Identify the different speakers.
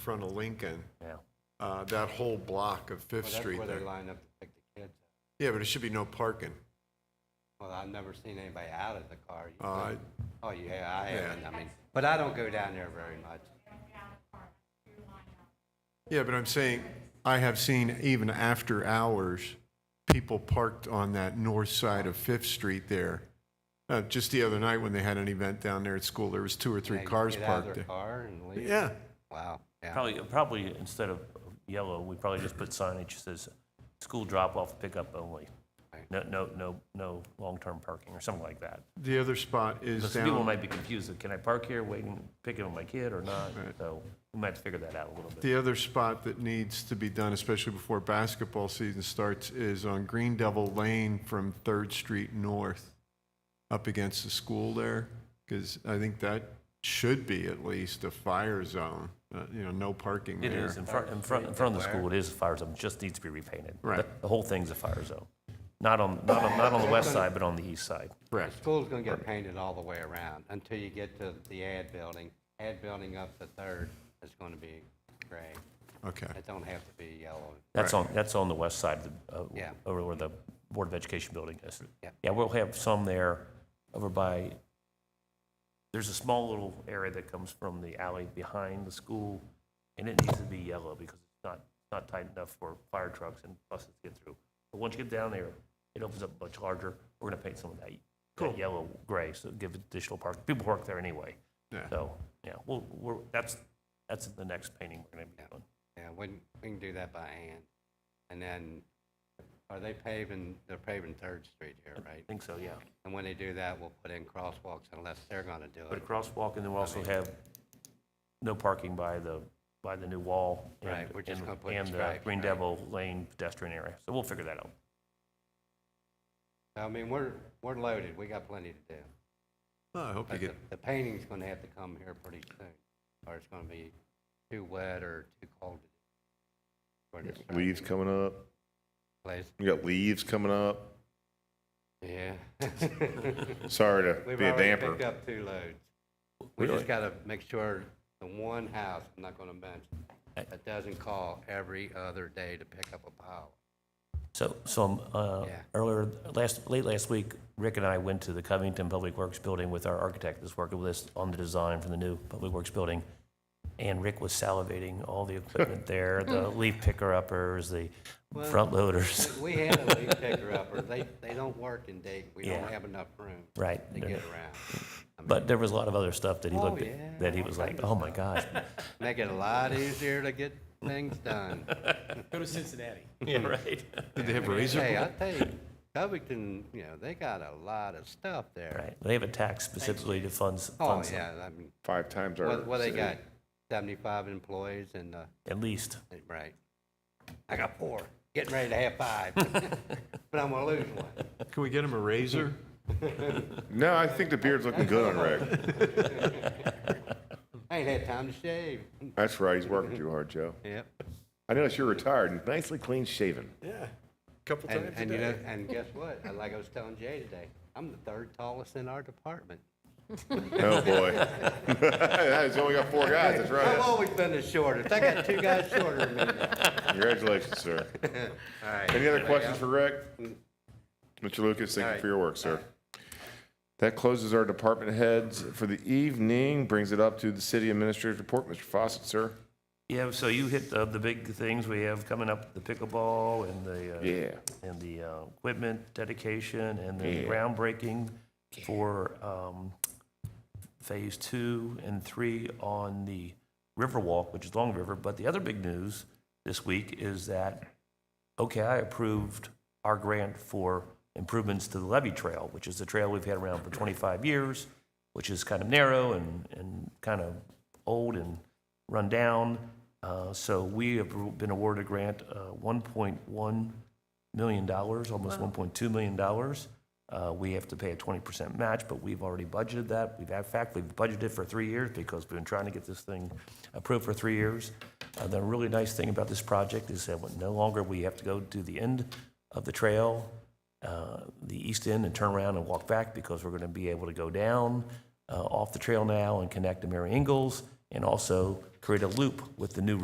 Speaker 1: front of Lincoln,
Speaker 2: Yeah.
Speaker 1: uh, that whole block of Fifth
Speaker 3: Well, that's
Speaker 1: Street
Speaker 3: where they
Speaker 1: there.
Speaker 3: line up to pick the kids up.
Speaker 1: Yeah, but there should be no parking.
Speaker 3: Well, I've never seen anybody out of the car. You
Speaker 1: Uh,
Speaker 3: could- Oh, yeah, I
Speaker 1: yeah.
Speaker 3: haven't, I mean, but I don't go down there very much.
Speaker 1: Yeah, but I'm saying, I have seen even after hours, people parked on that north side of Fifth Street there. Uh, Just the other night when they had an event down there at school, there was two or three
Speaker 3: They
Speaker 1: cars
Speaker 3: get out of
Speaker 1: parked
Speaker 3: their
Speaker 1: there.
Speaker 3: car and leave.
Speaker 1: Yeah,
Speaker 3: Wow, yeah.
Speaker 2: Probably, probably instead of yellow, we probably just put signage that says, "School drop-off, pickup only." No, no, no, no long-term parking or something like that.
Speaker 1: the other spot is
Speaker 2: Because people
Speaker 1: down,
Speaker 2: might be confused, that, can I park here waiting, picking up my kid or not? So we might have to figure that out a little bit.
Speaker 1: the other spot that needs to be done, especially before basketball season starts, is on Green Devil Lane from Third Street North, up against the school there, because I think that should be at least a fire zone, uh, you know, no parking there.
Speaker 2: It is, in front, in front, in front of the school, it is a fire zone, just needs to be repainted.
Speaker 1: Right.
Speaker 2: The- The whole thing's a fire zone. Not on, not on, not on the west side, but on the east side.
Speaker 3: The
Speaker 1: Correct.
Speaker 3: school's gonna get painted all the way around until you get to the ad building. Ad building up the third is gonna be gray.
Speaker 1: Okay.
Speaker 3: It don't have to be yellow.
Speaker 2: That's on, that's on the west side, of the, uh,
Speaker 3: Yeah.
Speaker 2: over where the Board of Education building is.
Speaker 3: Yeah.
Speaker 2: Yeah, we'll have some there over by, there's a small little area that comes from the alley behind the school, and it needs to be yellow because it's not, not tight enough for fire trucks and buses to get through. But once you get down there, it opens up much larger. We're gonna paint some of that, that yellow gray, so give additional park. People park there anyway.
Speaker 1: Yeah.
Speaker 2: So, yeah, we'll, we're, that's, that's the next painting we're gonna be doing.
Speaker 3: Yeah, we can, we can do that by hand. And then, are they paving, they're paving Third Street here,
Speaker 2: I
Speaker 3: right?
Speaker 2: think so, yeah.
Speaker 3: And when they do that, we'll put in crosswalks unless they're gonna do
Speaker 2: Put a
Speaker 3: it.
Speaker 2: crosswalk, and then we'll also have no parking by the, by the new wall. and-
Speaker 3: Right, we're just
Speaker 2: and-
Speaker 3: gonna put
Speaker 2: And the
Speaker 3: stripes,
Speaker 2: Green
Speaker 3: right.
Speaker 2: Devil Lane pedestrian area, so we'll figure that out.
Speaker 3: I mean, we're, we're loaded, we got plenty to do.
Speaker 1: Well, I hope you
Speaker 3: But the,
Speaker 1: get,
Speaker 3: the painting's gonna have to come here pretty soon, or it's gonna be too wet or too cold. for the
Speaker 4: Leaves
Speaker 3: surrounding
Speaker 4: coming up.
Speaker 3: place.
Speaker 4: We got leaves coming up.
Speaker 3: Yeah.
Speaker 4: Sorry to
Speaker 3: We've
Speaker 4: be a
Speaker 3: already picked
Speaker 4: damper.
Speaker 3: up two loads. We just
Speaker 4: Really?
Speaker 3: gotta make sure the one house, I'm not gonna mention, that doesn't call every other day to pick up a pile.
Speaker 2: So, so um, uh,
Speaker 3: Yeah.
Speaker 2: earlier, last, late last week, Rick and I went to the Covington Public Works Building with our architect that's working with us on the design for the new Public Works Building. And Rick was salivating all the equipment there, the
Speaker 3: Hmm.
Speaker 2: leaf picker uppers, the front loaders.
Speaker 3: We had a leaf picker upper, they, they don't work in Dayton, we don't
Speaker 2: Yeah.
Speaker 3: have enough room
Speaker 2: Right.
Speaker 3: to get around. I mean,
Speaker 2: But there was a lot of other stuff that he
Speaker 3: Oh,
Speaker 2: looked
Speaker 3: yeah,
Speaker 2: at, that he
Speaker 3: all
Speaker 2: was
Speaker 3: kinds
Speaker 2: like,
Speaker 3: of
Speaker 2: oh my gosh.
Speaker 3: Make it a lot easier to get things done.
Speaker 5: Go to Cincinnati.
Speaker 2: Yeah, right.
Speaker 1: did they have
Speaker 3: Hey,
Speaker 1: razor?
Speaker 3: I tell you, Covington, you know, they got a lot of stuff there.
Speaker 2: Right, they have a tax specifically to fund, s-
Speaker 3: Oh,
Speaker 2: fund some-
Speaker 3: yeah, I mean,
Speaker 4: Five times our.
Speaker 3: what, what they
Speaker 4: city.
Speaker 3: got, seventy-five employees and, uh,
Speaker 2: at least.
Speaker 3: right. I got four, getting ready to have five, but I'm gonna lose one.
Speaker 1: Can we get him a razor?
Speaker 4: No, I think the beard's looking good on Rick.
Speaker 3: I ain't had time to shave.
Speaker 4: That's right. He's working too hard, Joe.
Speaker 3: Yep.
Speaker 4: I noticed you're retired and nicely clean shaven.
Speaker 1: Yeah, couple
Speaker 3: And, and you know, and guess what? I- Like I was telling Jay today, I'm the third tallest in our department.
Speaker 4: Oh, boy. He's only got four guys. That's
Speaker 3: I've
Speaker 4: right.
Speaker 3: always been the shortest. I got two guys shorter than me.
Speaker 4: Congratulations, sir.
Speaker 3: All right.
Speaker 4: Any other questions for Rick? Mr. Lucas, thank you for your work, sir. That closes our department heads for the evening. Brings it up to the city administrator's report. Mr. Fawcett, sir.
Speaker 2: Yeah, so you hit the, the big things we have coming up, the pickleball and the, uh,
Speaker 4: Yeah.
Speaker 2: and the uh, equipment dedication and the
Speaker 4: Yeah.
Speaker 2: groundbreaking for um, Phase Two and Three on the Riverwalk, which is Long River. But the other big news this week is that OKI approved our grant for improvements to the levee trail, which is the trail we've had around for 25 years, which is kind of narrow and, and kind of old and run down. Uh, So we have been awarded a grant, uh, 1.1 million dollars, almost one point two million dollars. Uh, we have to pay a twenty percent match, but we've already budgeted that. We've, in fact, we've budgeted for three years because we've been trying to get this thing approved for three years. Uh, the really nice thing about this project is that no longer we have to go to the end of the trail, uh, the east end and turn around and walk back because we're going to be able to go down uh, off the trail now and connect to Mary Ingles and also create a loop with the new